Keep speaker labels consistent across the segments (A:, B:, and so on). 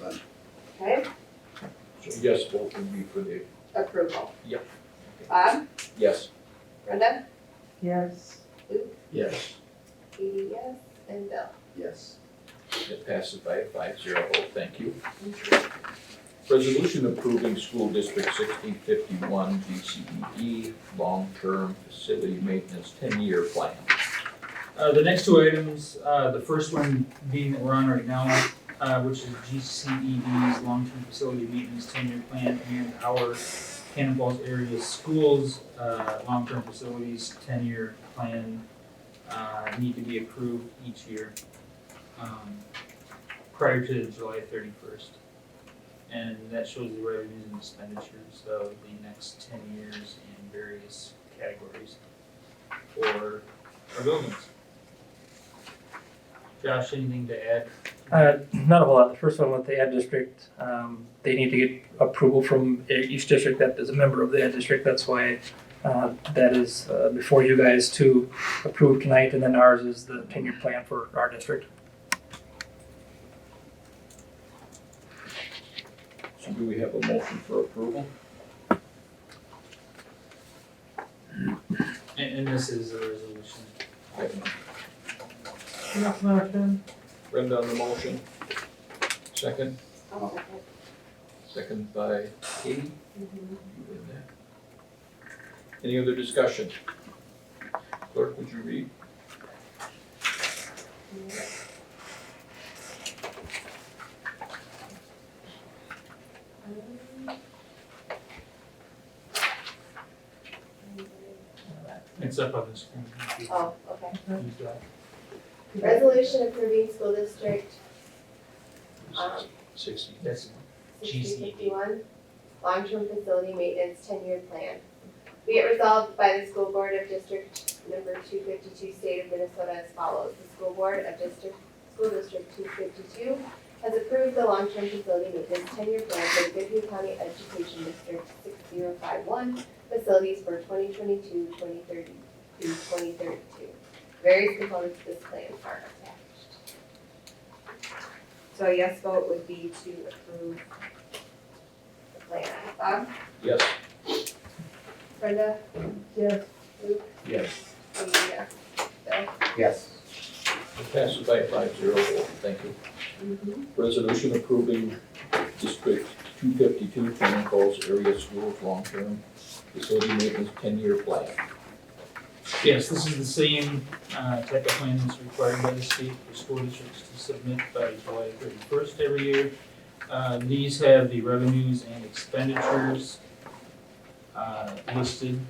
A: then.
B: okay,
C: So yes vote would be for the,
B: approval.
C: Yeah.
B: Bob,
C: yes.
B: Brenda,
D: Yes.
C: Yes.
B: Katie, yes, and Bill.
A: Yes.
C: It passes by a five zero vote, thank you. Resolution approving school district sixteen fifty-one E DCED long-term facility maintenance ten-year plan.
E: Uh, the next two items, uh, the first one being that we're on right now, uh, which is GCED's long-term facility maintenance ten-year plan and our Cannon Falls area schools, uh, long-term facilities ten-year plan, uh, need to be approved each year, um, prior to July thirty-first. And that shows the revenues and expenditures of the next ten years in various categories for our buildings. Josh, anything to add?
F: Uh, not a whole lot. The first one with the ad district, um, they need to get approval from each district that is a member of the ad district. That's why uh, that is uh, before you guys to approve tonight, and then ours is the ten-year plan for our district.
C: So do we have a motion for approval?
E: And, and this is a resolution.
C: I have none.
D: Enough motion.
C: Brenda on the motion. Second,
B: I'll second.
C: second by Katie. You in there? Any other discussion? Clerk, would you read?
E: It's up on the screen. Use that.
B: Oh, okay. Resolution approving school district, um,
C: Sixty.
E: That's
B: sixteen fifty-one, long-term facility maintenance ten-year plan. Be it resolved by the school board of district number two fifty-two, state of Minnesota as follows. The school board of district, school district two fifty-two has approved the long-term facility maintenance ten-year plan for the Goodhue County Education District six zero five one facilities for 2022-2030 through twenty thirty-two. Various components of this plan are attached. So a yes vote would be to approve the plan. Bob,
C: Yes.
B: Brenda,
D: Yes.
B: Luke,
C: Yes.
B: and yeah, Bill.
A: Yes.
C: It passes by five zero vote, thank you.
B: Mhm.
C: Resolution approving District two fifty-two Cannon Falls Area Schools Long-Term Facility Maintenance Ten-Year Plan.
E: Yes, this is the same, uh, type of plan that's required by the state for school districts to submit by July thirty-first every year. Uh, these have the revenues and expenditures, uh, listed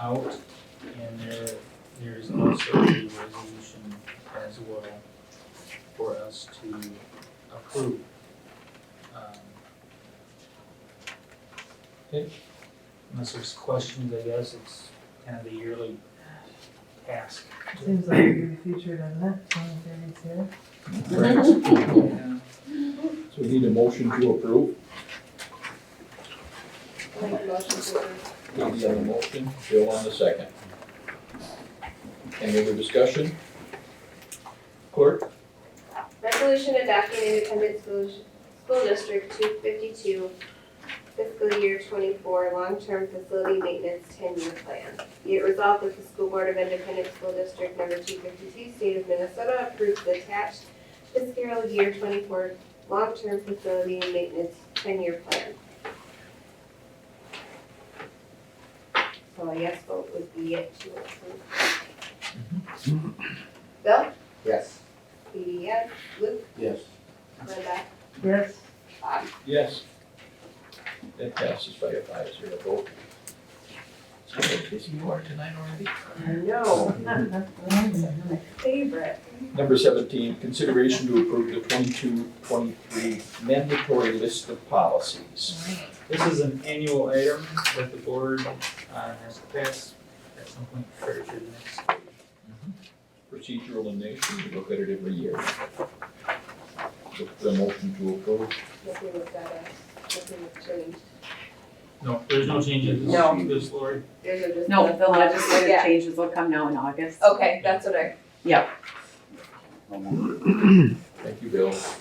E: out, and there, there's also a resolution as well for us to approve. Um, Okay, unless there's questions, I guess it's kind of the yearly task.
D: Seems like you're gonna be featured in that song, Danny's here.
C: So we need a motion to approve.
B: I'll make a motion to approve.
C: Katie on the motion, Bill on the second. Any other discussion? Clerk?
B: Resolution adopting independent school, school district two fifty-two fiscal year twenty-four long-term facility maintenance ten-year plan. Be it resolved that the school board of independent school district number two fifty-two, state of Minnesota approves the attached fiscal year twenty-four long-term facility maintenance ten-year plan. So a yes vote would be it to approve. Bill?
A: Yes.
B: Katie, yes. Luke?
A: Yes.
B: Brenda?
D: Yes.
B: Bob?
C: Yes. That passes by a five zero vote. So busy you are tonight already?
B: No. Favorite.
C: Number seventeen, consideration to approve the 22-23 mandatory list of policies.
E: This is an annual item that the board uh, has to pass at some point prior to the next.
C: Procedural in nature, we look at it every year. Look for the motion to approve.
B: Nothing was better. Nothing was changed.
E: No, there's no changes.
G: No.
E: This Lori,
B: There's a just.
G: No, the legislative
B: Yeah.
G: changes will come now in August.
B: Okay, that's what I
A: No more.
C: Thank you, Bill.